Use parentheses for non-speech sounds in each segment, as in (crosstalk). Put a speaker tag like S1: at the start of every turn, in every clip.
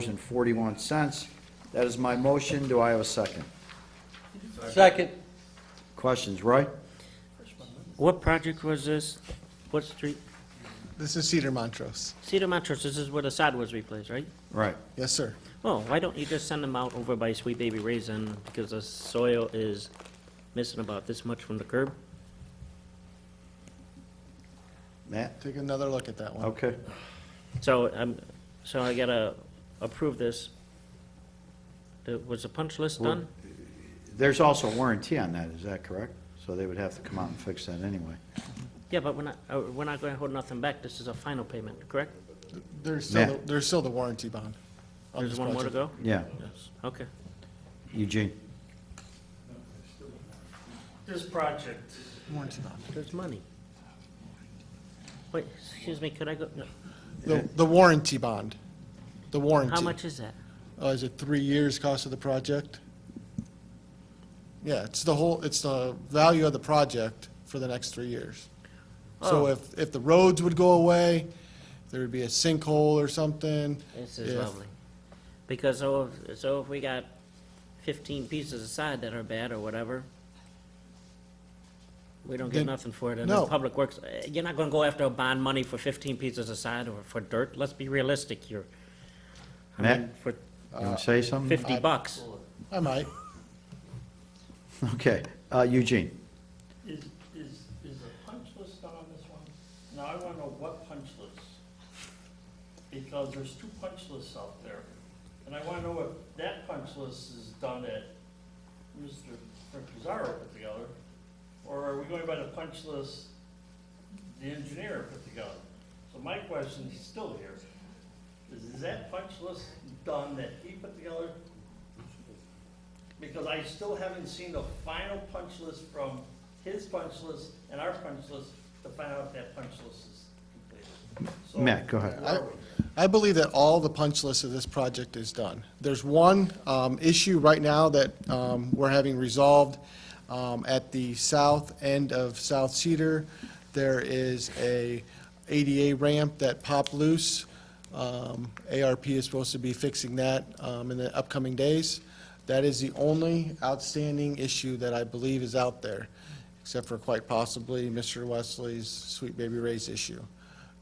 S1: $302.41. That is my motion. Do I have a second?
S2: Second.
S1: Questions, Roy?
S3: What project was this? What street?
S4: This is Cedar Montrose.
S3: Cedar Montrose, this is where the sod was replaced, right?
S1: Right.
S4: Yes, sir.
S3: Oh, why don't you just send them out over by Sweet Baby Raisin, because the soil is missing about this much from the curb?
S1: Matt?
S4: Take another look at that one.
S1: Okay.
S3: So, um, so I gotta approve this. Uh, Was the punch list done?
S1: There's also a warranty on that, is that correct? So they would have to come out and fix that anyway.
S3: Yeah, but we're not, uh, we're not gonna hold nothing back, this is a final payment, correct?
S4: There's still,
S1: Yeah.
S4: the- there's still the warranty bond. on
S3: There's
S4: this
S3: one more to
S4: project.
S3: go?
S1: Yeah.
S3: Yes. Okay.
S1: Eugene?
S5: This project,
S4: Warranty bond.
S3: There's money. Wait, excuse me, could I go, no.
S4: The, the warranty bond. The warranty.
S3: how much is that?
S4: Uh, is it three years cost of the project? Yeah, it's the whole, it's the value of the project for the next three years.
S3: Oh.
S4: So if, if the roads would go away, there would be a sinkhole or something.
S3: This is
S4: if-
S3: lovely. Because so if, so if we got fifteen pieces of side that are bad or whatever, we don't get
S4: Then-
S3: nothing for it, and then
S4: no.
S3: Public Works, eh, you're not gonna go after a bond money for fifteen pieces of side or for dirt, let's be realistic here. I
S1: Matt?
S3: mean, for
S1: You want to say something?
S4: Mm,
S3: fifty bucks,
S4: I might.
S1: Okay. Uh, Eugene?
S5: is, is, is a punch list done on this one? Now, I wanna know what punch list. Because there's two punch lists out there. And I wanna know if that punch list is done at Mr. Frank Pizarro put together, or are we going by the punch list the engineer put together? So my question is still here. Is that punch list done that he put together? Because I still haven't seen the final punch list from his punch list and our punch list to find out if that punch list is completed. So-
S1: Matt, go ahead.
S5: Where are we?
S4: I believe that all the punch list of this project is done. There's one um, issue right now that um, we're having resolved um, at the south end of South Cedar. There is a ADA ramp that popped loose. Um, ARP is supposed to be fixing that um, in the upcoming days. That is the only outstanding issue that I believe is out there, except for quite possibly Mr. Wesley's Sweet Baby Ray's issue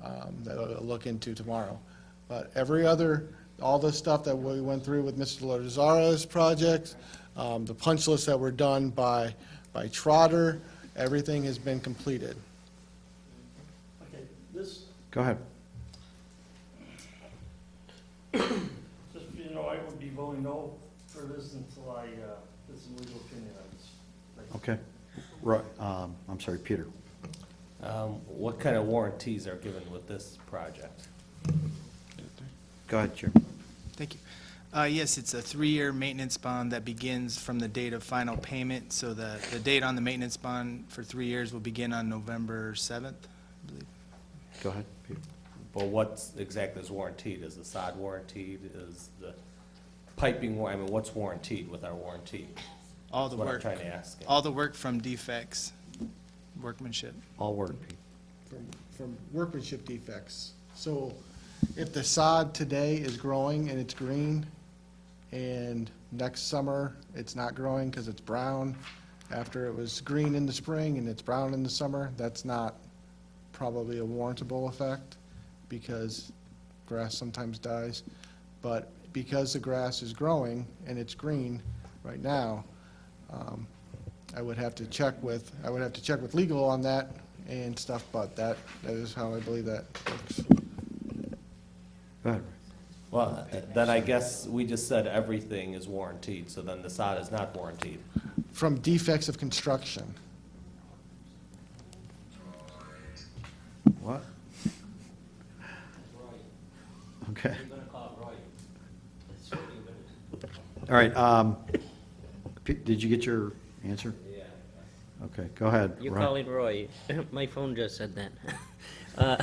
S4: um, that I'll look into tomorrow. But every other, all the stuff that we went through with Mr. Lozara's project, um, the punch list that were done by, by Trotter, everything has been completed.
S5: Okay, this,
S1: Go ahead.
S5: just, so you know, I would be voting no for this until I, uh, get some legal opinion on this.
S1: Okay. Roy, um, I'm sorry, Peter.
S2: Um, What kind of warranties are given with this project?
S1: Go ahead, Jim.
S6: Thank you. Uh, Yes, it's a three-year maintenance bond that begins from the date of final payment, so the, the date on the maintenance bond for three years will begin on November 7th, I believe.
S1: Go ahead, Peter.
S2: But what's exactly is warranted? Is the sod warranted? Is the piping, wa- I mean, what's warranted with our warranty?
S6: All the
S2: That's what I'm
S6: work,
S2: trying to ask.
S6: all the work from defects, workmanship.
S1: All word, Pete.
S4: from, from workmanship defects. So if the sod today is growing and it's green, and next summer it's not growing because it's brown, after it was green in the spring and it's brown in the summer, that's not probably a warrantable effect because grass sometimes dies. But because the grass is growing and it's green right now, um, I would have to check with, I would have to check with legal on that and stuff, but that, that is how I believe that works.
S1: Go ahead, Roy.
S2: Well, then I guess we just said everything is warranted, so then the sod is not warranted.
S4: From defects of construction.
S1: What? Okay. All right, um, P- did you get your answer? Yeah. Okay, go ahead.
S3: you
S1: Roy.
S3: call it Roy, (laughs) my phone just said that. (laughs) Uh,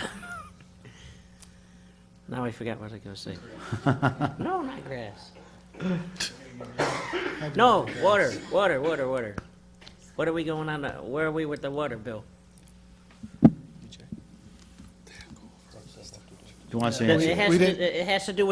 S3: (laughs) Now I forgot what I was gonna say. No, not grass. (laughs) No, water, water, water, water. What are we going on, uh, where are we with the water bill?
S1: You want to say?
S3: It
S1: anything?
S3: has
S4: We
S3: to,
S4: didn't-
S3: it has to do with